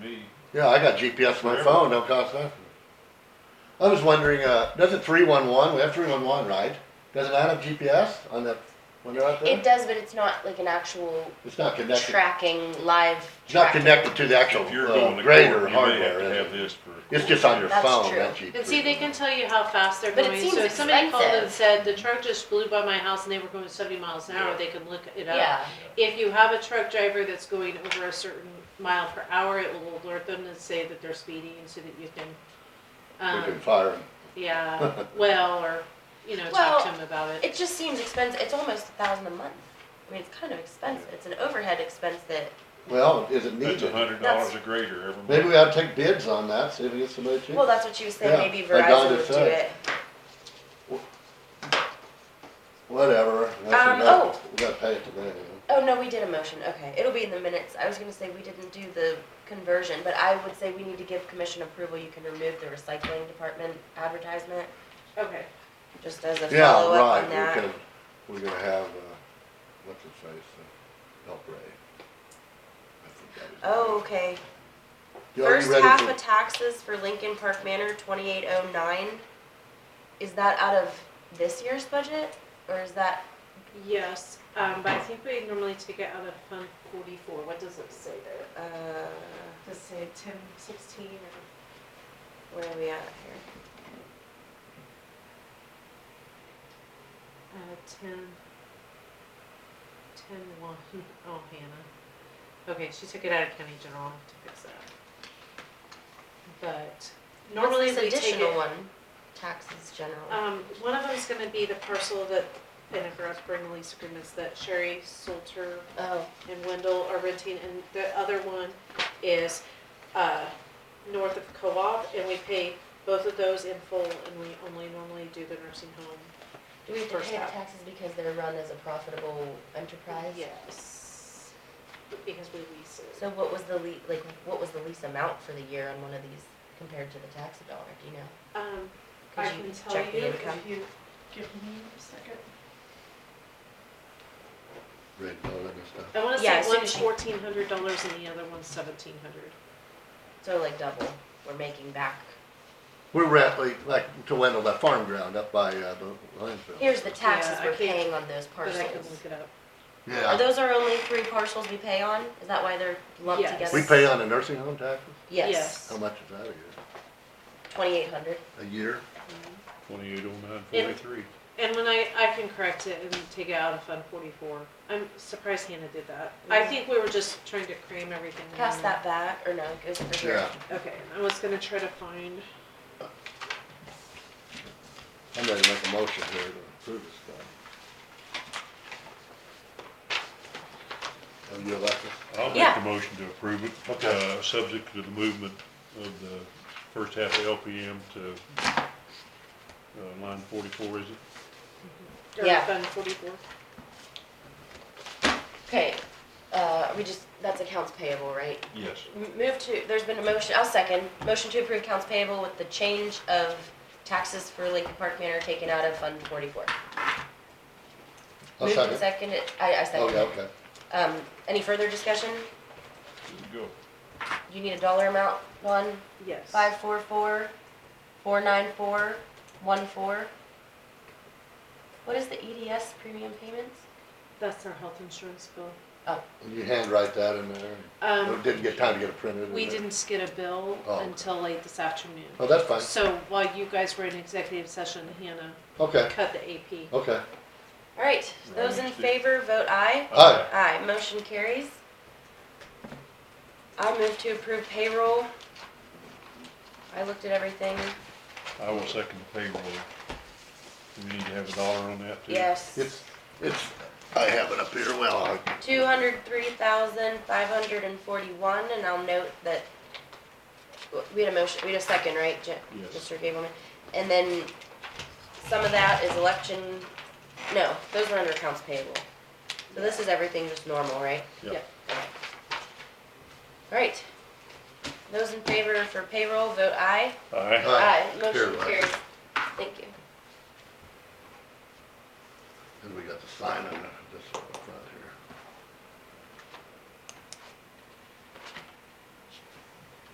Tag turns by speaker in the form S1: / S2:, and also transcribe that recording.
S1: Me,
S2: Yeah, I got GPS on my
S1: Sure.
S2: phone, don't cost nothing. I was wondering, uh, doesn't three one one, we have three one one, right? Doesn't that have GPS on that, when they're out there?
S3: It does, but it's not like an actual
S2: It's not connected,
S3: tracking, live
S2: it's not
S3: tracking.
S2: connected to the actual
S1: if you're going
S2: uh,
S1: to
S2: grader
S1: court, you may
S2: hardware,
S1: have to
S2: is
S1: have
S2: it?
S1: this for.
S2: It's just on your
S1: court.
S3: That's
S2: phone,
S3: true.
S2: that GPS.
S4: And see, they can tell you how fast they're
S3: But it
S4: going,
S3: seems
S4: so if somebody called and
S3: expensive.
S4: said, the truck just blew by my house and they were going seventy miles an hour,
S1: Yeah.
S4: they can look it up.
S3: Yeah,
S4: If you have a truck driver that's going over a certain mile per hour, it will alert them and say that they're speeding so that you can,
S3: uh,
S2: We can
S4: um,
S2: fire 'em.
S4: yeah, well, or, you know,
S3: Well,
S4: talk to them about it.
S3: it just seems expensive. It's almost a thousand a month. I mean, it's kind of expensive. It's an overhead expense that
S2: Well, is it
S1: That's a
S2: needed?
S1: hundred dollars a grader every month.
S2: Maybe we ought to take bids on that, see if we get somebody cheap.
S3: Well, that's what she was saying.
S2: Yeah,
S3: Maybe
S2: like Donna
S3: Verizon would do
S2: said.
S3: it.
S2: Whatever,
S3: Um,
S2: that's enough, we gotta pay it today. you
S3: Oh no, we did a motion. Okay, it'll be in the minutes. I was gonna say we didn't do the conversion, but I would say we need to give commission approval. You can remove the recycling department advertisement
S4: Okay,
S3: just as a
S2: know? Yeah,
S3: follow up
S2: right,
S3: on that.
S2: we're gonna, we're gonna have, uh, what's his face, uh, help Ray. I think that was-
S3: Oh, okay.
S2: You- are you
S3: First
S2: ready
S3: half
S2: for-
S3: of taxes for Lincoln Park Manor, twenty-eight oh nine. Is that out of this year's budget or is that,
S4: yes, um, but I think we normally take it out of Fund forty-four, what does it say there?
S3: uh,
S4: Does it say ten sixteen or?
S3: where are we at
S4: Uh, ten, ten one, oh, Hannah. Okay, she took it out of county general, I'll have to fix that. But
S3: here?
S4: normally
S3: What's
S4: we
S3: this
S4: take
S3: additional
S4: it,
S3: one? Taxes general.
S4: um, one of them's gonna be the parcel that, and if we're up for any lease agreements, that Sherry Salter
S3: Oh,
S4: and Wendell are renting, and the other one is, uh, north of co-op, and we pay both of those in full, and we only normally do the nursing home.
S3: do we have to
S4: first
S3: pay the
S4: half.
S3: taxes because they're run as a profitable enterprise?
S4: Yes, because we lease it.
S3: So what was the lea, like, what was the lease amount for the year on one of these compared to the tax dollar, do you know?
S4: Um,
S3: Could
S4: I
S3: you
S4: can tell
S3: check the
S4: you if
S3: income?
S4: you,
S5: Give me a second.
S2: Red Bull and stuff.
S4: I wanna
S3: Yeah,
S4: say
S3: as soon
S4: one's
S3: as you-
S4: fourteen hundred dollars and the other one's seventeen hundred.
S3: So like double, we're making back.
S2: We're rent, like, like to Wendell, that farm ground up by, uh, the landfill.
S3: Here's the taxes
S4: Yeah, I
S3: we're
S4: can't-
S3: paying on those
S4: But
S3: parcels.
S4: I can look it up.
S3: Are
S2: Yeah,
S3: those our only three parcels we pay on? Is that why they're lumped
S4: Yes.
S3: together?
S2: we pay on the nursing home taxes,
S3: Yes,
S4: Yes.
S2: how much is that a year?
S3: twenty-eight hundred.
S2: A year?
S1: Twenty-eight oh nine
S4: And-
S1: forty-three.
S4: And when I, I can correct it and take it out of Fund forty-four. I'm surprised Hannah did that. I
S3: Yeah.
S4: think we were just trying to cram everything in.
S3: Pass that back, or no, it goes over here.
S2: Yeah.
S4: Okay, and I was gonna try to find,
S2: I'm ready to make a motion here to approve this stuff. Have Oh, you elected?
S1: I'll make
S3: Yeah.
S1: the motion to approve it,
S2: Okay.
S1: uh, subject to the movement of the first half of LPM to, uh, line forty-four, is it?
S4: or
S3: Yeah.
S4: Fund forty-four.
S3: Okay, uh, we just, that's accounts payable, right?
S1: Yes.
S3: M- Move to, there's been a motion, I'll second, motion to approve accounts payable with the change of taxes for Lincoln Park Manor taken out of Fund forty-four.
S2: I'll
S3: Moved and
S2: second.
S3: seconded, I, I
S2: Oh,
S3: second.
S2: yeah, okay.
S3: Um, any further discussion?
S1: Go.
S3: You need a dollar amount, Dawn?
S4: Yes.
S3: Five four four, four nine four, one four. What is the EDS premium payments?
S4: That's our health insurance bill.
S2: And You handwrite that in there,
S4: Um,
S2: and didn't get time to get it printed. in
S4: we
S2: there.
S4: didn't get a bill
S2: Oh, okay.
S4: until late this afternoon.
S2: Oh, that's fine,
S4: So while you guys were in executive session, Hannah
S2: okay,
S4: cut the AP.
S2: okay.
S3: All right, those in
S1: Right.
S3: favor, vote aye.
S2: Aye.
S3: Aye, motion carries. I move to approve payroll. I looked at everything,
S1: I will second the payroll. Do we need to have a dollar on that too?
S3: yes.
S2: It's, it's, I have it up here, well, I
S3: Two hundred three thousand five hundred and forty-one, and I'll note that, we had a motion, we had a second, right, Je-
S1: Yes.
S3: Mr. Gableman? And then some of that is election, no, those are under accounts payable. So this is everything just normal, right?
S1: Yeah.
S4: Yeah.
S3: Right. Those in favor for payroll, vote aye.
S1: Aye.
S2: Aye.
S3: Motion
S2: Payroll.
S3: carries. Thank you.
S2: And we got the sign on it, this one.